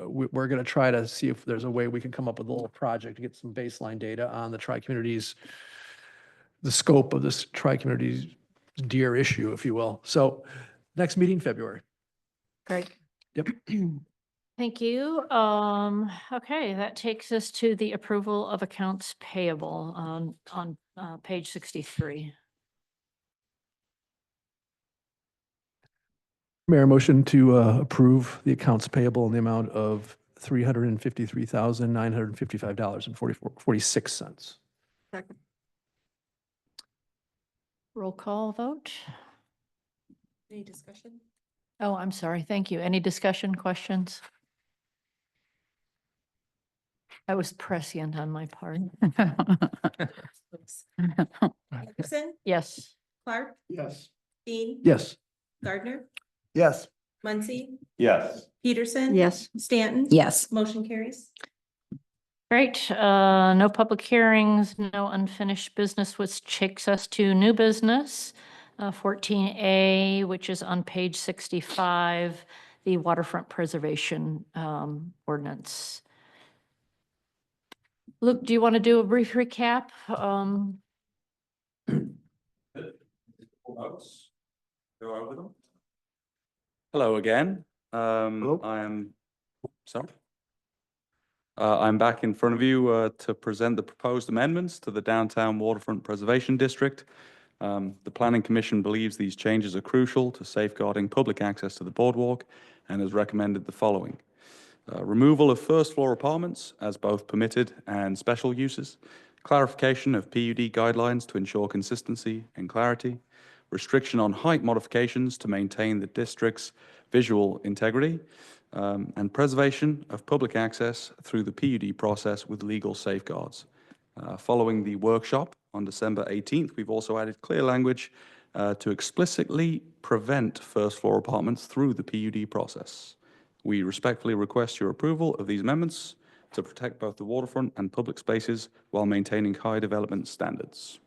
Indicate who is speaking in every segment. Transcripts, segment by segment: Speaker 1: uh, we, we're going to try to see if there's a way we can come up with a little project to get some baseline data on the tri-communities, the scope of this tri-communities deer issue, if you will. So next meeting, February.
Speaker 2: Great.
Speaker 1: Yep.
Speaker 2: Thank you. Um, okay, that takes us to the approval of accounts payable on, on, uh, page sixty-three.
Speaker 1: Mayor, motion to uh, approve the accounts payable in the amount of three hundred and fifty-three thousand, nine hundred and fifty-five dollars and forty-four, forty-six cents.
Speaker 2: Roll call vote.
Speaker 3: Any discussion?
Speaker 2: Oh, I'm sorry. Thank you. Any discussion, questions? That was prescient on my part.
Speaker 3: Oops. Anderson,
Speaker 2: Yes.
Speaker 3: Clark,
Speaker 1: Yes.
Speaker 3: Dean.
Speaker 1: Yes.
Speaker 3: Gardner,
Speaker 4: Yes.
Speaker 3: Muncy,
Speaker 4: Yes.
Speaker 3: Peterson.
Speaker 5: Yes.
Speaker 3: Stanton.
Speaker 5: Yes.
Speaker 3: Motion carries.
Speaker 2: Great. Uh, no public hearings, no unfinished business, which takes us to new business. Uh, Fourteen A, which is on page sixty-five, the waterfront preservation um, ordinance. Luke, do you want to do a brief recap? Um,
Speaker 6: Hello again. Um, I am, sorry. Uh, I'm back in front of you, uh, to present the proposed amendments to the Downtown Waterfront Preservation District. Um, the Planning Commission believes these changes are crucial to safeguarding public access to the boardwalk and has recommended the following. Uh, Removal of first-floor apartments as both permitted and special uses. Clarification of PUD guidelines to ensure consistency and clarity. Restriction on height modifications to maintain the district's visual integrity. um, And preservation of public access through the PUD process with legal safeguards. Uh, Following the workshop on December 18th, we've also added clear language uh, to explicitly prevent first-floor apartments through the PUD process. We respectfully request your approval of these amendments to protect both the waterfront and public spaces while maintaining high development standards.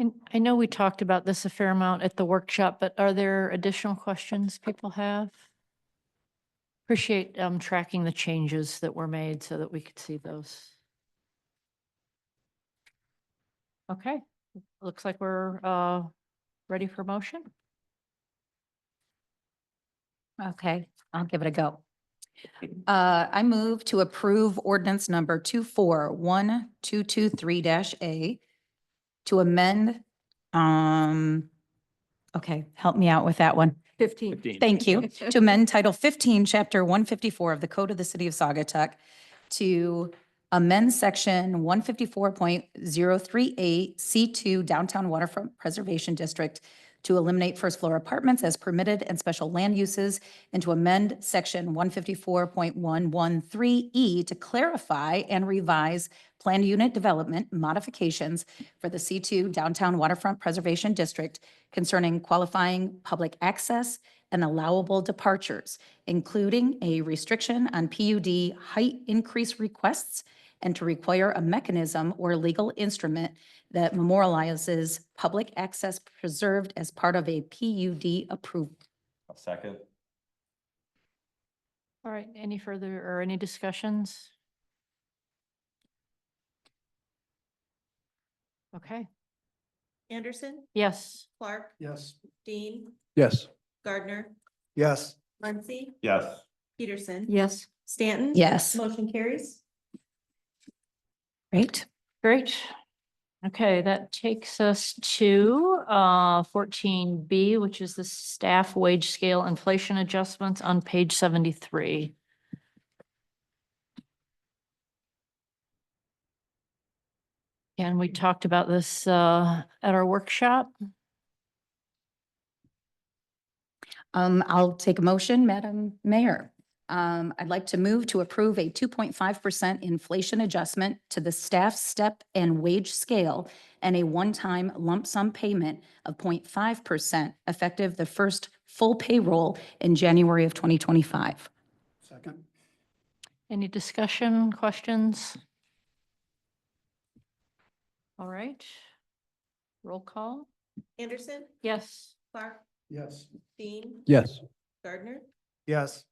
Speaker 2: And I know we talked about this a fair amount at the workshop, but are there additional questions people have? Appreciate um, tracking the changes that were made so that we could see those. Okay, looks like we're uh, ready for motion.
Speaker 5: Okay, I'll give it a go. Uh, I move to approve ordinance number two four one two two three dash A to amend, um, okay, help me out with that one.
Speaker 7: Fifteen.
Speaker 5: Thank you. To amend Title 15, Chapter 154 of the Code of the City of Saugatuck to amend Section 154.038 C2 Downtown Waterfront Preservation District to eliminate first floor apartments as permitted and special land uses and to amend Section 154.113E E to clarify and revise planned unit development modifications for the C2 Downtown Waterfront Preservation District concerning qualifying public access and allowable departures, including a restriction on PUD height increase requests and to require a mechanism or legal instrument that memorializes public access preserved as part of a PUD approval.
Speaker 4: Second.
Speaker 2: All right, any further or any discussions? Okay,
Speaker 3: Anderson,
Speaker 2: yes.
Speaker 3: Clark,
Speaker 1: Yes.
Speaker 3: Dean,
Speaker 1: Yes.
Speaker 3: Gardner,
Speaker 4: Yes.
Speaker 3: Muncy,
Speaker 4: Yes.
Speaker 3: Peterson.
Speaker 7: Yes.
Speaker 3: Stanton.
Speaker 5: Yes,
Speaker 3: Motion carries.
Speaker 5: right?
Speaker 2: Great. Okay, that takes us to uh fourteen B, which is the staff wage scale inflation adjustments on page seventy-three. And we talked about this uh at our workshop.
Speaker 5: Um, I'll take a motion, Madam Mayor. Um, I'd like to move to approve a two point five percent inflation adjustment to the staff step and wage scale and a one-time lump sum payment of 0.5 percent effective the first full payroll in January of twenty twenty-five.
Speaker 1: Second.
Speaker 2: Any discussion, questions? All right. Roll call.
Speaker 3: Anderson,
Speaker 2: Yes.
Speaker 3: Clark,
Speaker 1: Yes.
Speaker 3: Dean,
Speaker 1: Yes.
Speaker 3: Gardner,
Speaker 4: Yes.